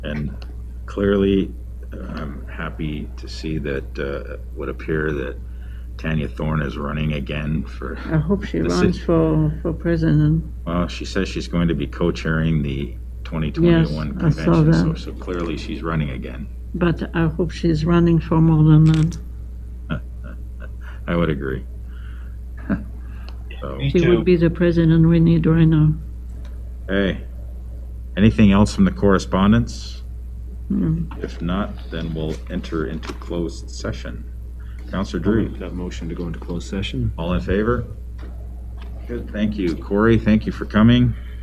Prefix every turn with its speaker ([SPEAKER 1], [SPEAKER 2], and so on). [SPEAKER 1] And clearly, I'm happy to see that, uh, would appear that Tanya Thorne is running again for,
[SPEAKER 2] I hope she
[SPEAKER 1] The
[SPEAKER 2] runs
[SPEAKER 1] sit-
[SPEAKER 2] for, for president.
[SPEAKER 1] well, she says she's going to be co-chairing the 2021
[SPEAKER 2] Yes, I saw
[SPEAKER 1] convention. So,
[SPEAKER 2] that.
[SPEAKER 1] so clearly she's running again.
[SPEAKER 2] But I hope she's running for more than that.
[SPEAKER 1] I would agree. So,
[SPEAKER 3] Me
[SPEAKER 2] She
[SPEAKER 3] too.
[SPEAKER 2] would be the president we need right now.
[SPEAKER 1] hey, anything else from the correspondence?
[SPEAKER 2] Mm.
[SPEAKER 1] If not, then we'll enter into closed session. Counselor
[SPEAKER 4] I'll
[SPEAKER 1] Drew?
[SPEAKER 4] make That motion to go into closed session.
[SPEAKER 1] All in favor? Good, thank you. Corey, thank you for coming.